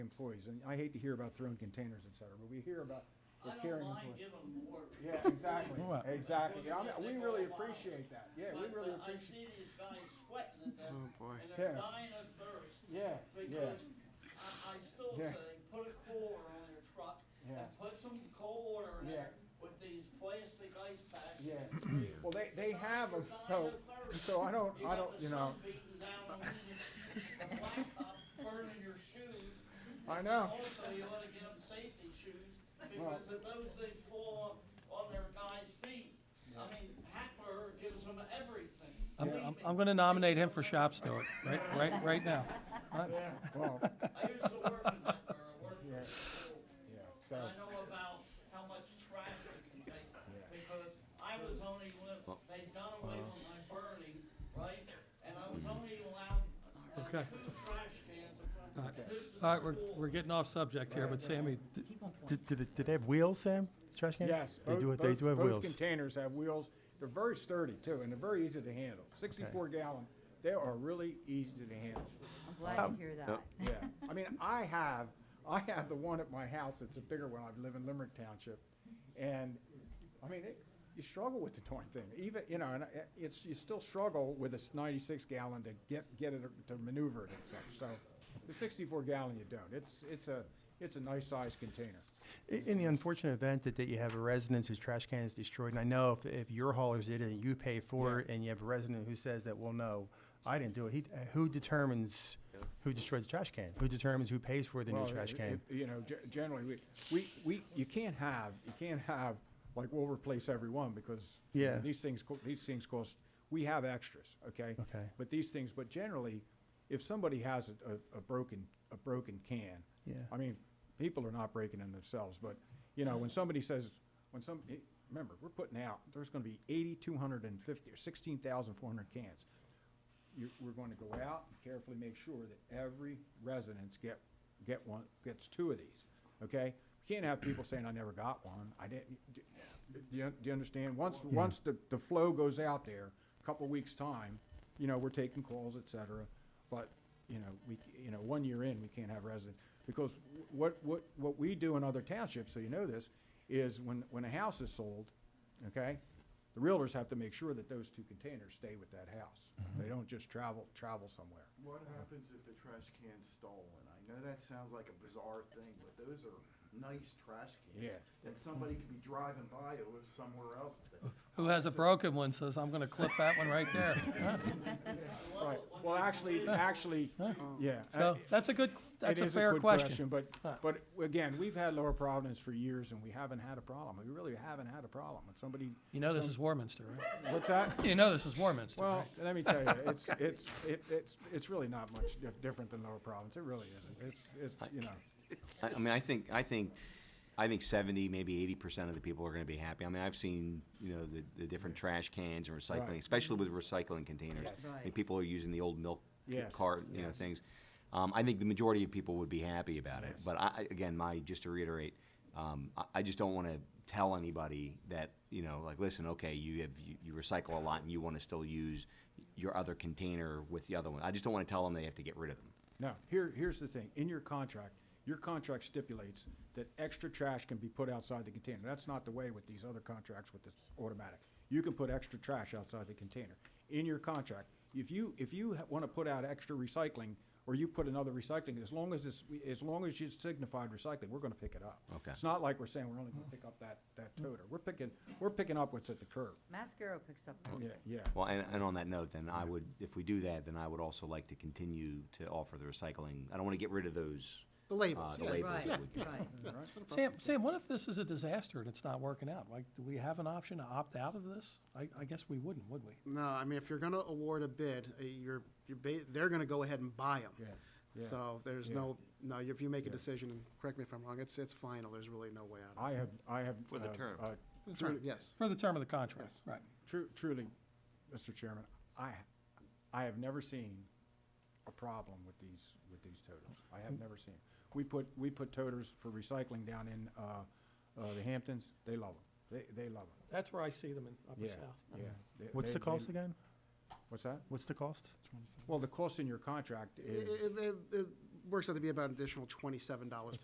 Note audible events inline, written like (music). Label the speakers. Speaker 1: employees, and I hate to hear about thrown containers, et cetera, but we hear about they're
Speaker 2: I don't
Speaker 1: carrying
Speaker 2: mind
Speaker 1: employees.
Speaker 2: giving them more.
Speaker 1: (laughs) Yeah,
Speaker 2: (laughs)
Speaker 1: exactly,
Speaker 3: Well-
Speaker 1: exactly. Yeah, I mean,
Speaker 2: Because
Speaker 1: we
Speaker 2: they
Speaker 1: really
Speaker 2: go wild.
Speaker 1: appreciate that. Yeah, we
Speaker 2: But,
Speaker 1: really
Speaker 2: uh, I
Speaker 1: appreciate,
Speaker 2: see these guys sweating at that,
Speaker 4: Oh, boy.
Speaker 2: and they're
Speaker 1: Yes.
Speaker 2: dying of thirst.
Speaker 1: yeah, yeah,
Speaker 2: Because I, I still
Speaker 1: Yeah.
Speaker 2: say, put a cooler on your truck
Speaker 1: yeah.
Speaker 2: and put some cold water in
Speaker 1: Yeah.
Speaker 2: there with these plastic ice packs.
Speaker 1: Yeah.
Speaker 2: and freeze.
Speaker 1: Well, they, they
Speaker 2: Guys
Speaker 1: have
Speaker 2: are
Speaker 1: them,
Speaker 2: dying
Speaker 1: so,
Speaker 2: of thirst.
Speaker 1: so I don't, I don't, you know,
Speaker 2: got the sun beating down on you, the blacktop burning your shoes.
Speaker 1: I know.
Speaker 2: Also, you wanna get them safety shoes,
Speaker 1: Well-
Speaker 2: because if those things fall on their guys' feet, I mean, Hackler gives them everything.
Speaker 3: I'm,
Speaker 2: Believe
Speaker 3: I'm-
Speaker 2: me.
Speaker 3: I'm gonna nominate him for shop steward, right, right, right now.
Speaker 1: Well,
Speaker 2: I used to work in Hackler, I worked
Speaker 1: Yeah.
Speaker 2: for school,
Speaker 1: yeah,
Speaker 2: and
Speaker 1: so,
Speaker 2: I know about how much trash it can take, because I was only, when they done away with my burning, right? And I was only allowed, uh, two
Speaker 3: Okay.
Speaker 2: trash cans in front of. this is
Speaker 3: All right, we're,
Speaker 2: school.
Speaker 3: we're getting off subject here, but Sammy, d-
Speaker 4: Do, do, they, do they have wheels, Sam? Trash cans?
Speaker 1: yes.
Speaker 4: They do,
Speaker 1: both-
Speaker 4: they
Speaker 1: both-
Speaker 4: do have
Speaker 1: both
Speaker 4: wheels.
Speaker 1: Containers have wheels. They're very sturdy too, and they're very easy to handle. Sixty-four gallon, they are really easy to handle.
Speaker 5: I'm glad to hear that.
Speaker 1: (laughs) Yeah, I mean, I have, I have the one at my house, it's a bigger one, I live in Limerick Township, and, I mean, it, you struggle with the darn thing, even, you know, and it- it's, you still struggle with this ninety-six gallon to get, get it, to maneuver it and such, so, the sixty-four gallon you don't, it's, it's a, it's a nice sized container.
Speaker 4: I- In the unfortunate event that, that you have a resident whose trash can is destroyed, and I know if, if your haulers did it and you pay for it, and you have a resident who says that, well, no, I didn't do it. He, uh, who determines who destroyed the trash can? Who determines who pays for the
Speaker 1: Well,
Speaker 4: new trash
Speaker 1: it-
Speaker 4: can?
Speaker 1: it- You know, ge- generally, we, we, we, you can't have, you can't have, like, we'll replace every one, because you know,
Speaker 4: Yeah.
Speaker 1: these things, co- these things cost, we have extras, okay?
Speaker 4: Okay.
Speaker 1: But these things, but generally, if somebody has a, a, a broken, a broken can,
Speaker 4: Yeah.
Speaker 1: I mean, people are not breaking them themselves, but, you know, when somebody says, when some, eh, remember, we're putting out, there's gonna be eighty-two hundred and fifty, or sixteen thousand four hundred cans. You, we're gonna go out and carefully make sure that every residence get, get one, gets two of these, okay? We Can't have people saying, I never got one, I didn't, do you, do you understand? Once, once the, the flow goes out there, a couple weeks' time, you know, we're taking calls, et cetera, but you know, we, c- you know, one year in, we can't have residents, because what, what, what we do in other townships, so you know this, is when, when a house is sold, okay, the realtors have to make sure that those two containers stay with that house.
Speaker 3: Mm-hmm.
Speaker 1: They don't just travel, travel somewhere.
Speaker 6: What happens if the trash can's stolen? I know that sounds like a bizarre thing, but those are nice trash cans.
Speaker 1: Yeah.
Speaker 6: And somebody could be driving by who lives somewhere else and say,
Speaker 3: who has a broken one says, I'm gonna clip that one right
Speaker 1: (laughs)
Speaker 3: there.
Speaker 1: Right, well, actually,
Speaker 3: (laughs)
Speaker 1: actually, yeah. uh,
Speaker 3: So, that's a good, that's
Speaker 1: It
Speaker 3: a
Speaker 1: is
Speaker 3: fair
Speaker 1: good
Speaker 3: question.
Speaker 1: But,
Speaker 3: Huh.
Speaker 1: but again, we've had Lower Providence for years and we haven't had a problem. We really haven't had a problem. When somebody,
Speaker 3: You know this is Warminster, right?
Speaker 1: what's that?
Speaker 3: (laughs) You know this is Warminster,
Speaker 1: Well,
Speaker 3: right?
Speaker 1: let me tell you, it's, it's, it- it's, it's really not much dif- different than Lower Providence. It really isn't. It's, it's, you know,
Speaker 7: I, I mean, I think, I think, I think seventy, maybe eighty percent of the people are gonna be happy. I mean, I've seen, you know, the, the different trash cans and
Speaker 1: Right.
Speaker 7: recycling, especially with recycling containers.
Speaker 1: Yes.
Speaker 5: Right.
Speaker 7: And people are using the old milk c-
Speaker 1: Yes,
Speaker 7: cart, you know,
Speaker 1: yes.
Speaker 7: things. Um, I think the majority of people would be happy about it.
Speaker 1: Yes.
Speaker 7: But I, I- again, my, just to reiterate, um, I, I just don't wanna tell anybody that, you know, like, listen, okay, you have, you, you recycle a lot and you wanna still use your other container with the other one. I just don't wanna tell them they have to get rid of them.
Speaker 1: no, here, here's the thing. In your contract, your contract stipulates that extra trash can be put outside the container. That's not the way with these other contracts with this automatic. You can put extra trash outside the container. In your contract, if you, if you want to put out extra recycling or you put another recycling, as long as it's, as long as it's signified recycling, we're going to pick it up.
Speaker 7: Okay.
Speaker 1: It's not like we're saying we're only going to pick up that, that toter. We're picking, we're picking up what's at the curb.
Speaker 5: Mascaro picks up
Speaker 8: Oh,
Speaker 1: Yeah,
Speaker 5: everything.
Speaker 1: yeah.
Speaker 7: Well, and, and on that note, then I would, if we do that, then I would also like to continue to offer the recycling. I don't want to get rid of those.
Speaker 8: The labels,
Speaker 7: uh, the
Speaker 8: yeah.
Speaker 7: labels
Speaker 5: Right,
Speaker 7: that we get.
Speaker 5: right.
Speaker 3: Sam, Sam, what if this is a disaster and it's not working out? Like, do we have an option to opt out of this? I, I guess we wouldn't, would we?
Speaker 8: No, I mean, if you're gonna award a bid, uh, you're, you're ba- they're gonna go ahead and buy them.
Speaker 1: Yeah, yeah,
Speaker 8: So there's
Speaker 1: yeah.
Speaker 8: no, no, if you make a decision, and correct me if I'm wrong, it's, it's final, there's really no way out.
Speaker 1: I have, I have.
Speaker 7: For the
Speaker 1: uh,
Speaker 7: term.
Speaker 1: uh,
Speaker 8: That's right, yes.
Speaker 3: For the term of the contract,
Speaker 8: Yes.
Speaker 3: right?
Speaker 1: Tru- truly, Mr. Chairman, I, I have never seen a problem with these, with these toters. I have never seen. We put, we put toters for recycling down in, uh, uh, the Hamptons. They love them. They, they love them.
Speaker 3: That's where I see them in Upper
Speaker 1: Yeah,
Speaker 3: South.
Speaker 1: yeah. They-
Speaker 4: What's
Speaker 1: they-
Speaker 4: the
Speaker 1: they-
Speaker 4: cost again?
Speaker 1: What's that?
Speaker 4: What's the cost?
Speaker 1: Well, the cost in your contract
Speaker 8: I-
Speaker 1: is,
Speaker 8: i- i- i- works out to be about an additional twenty-seven dollars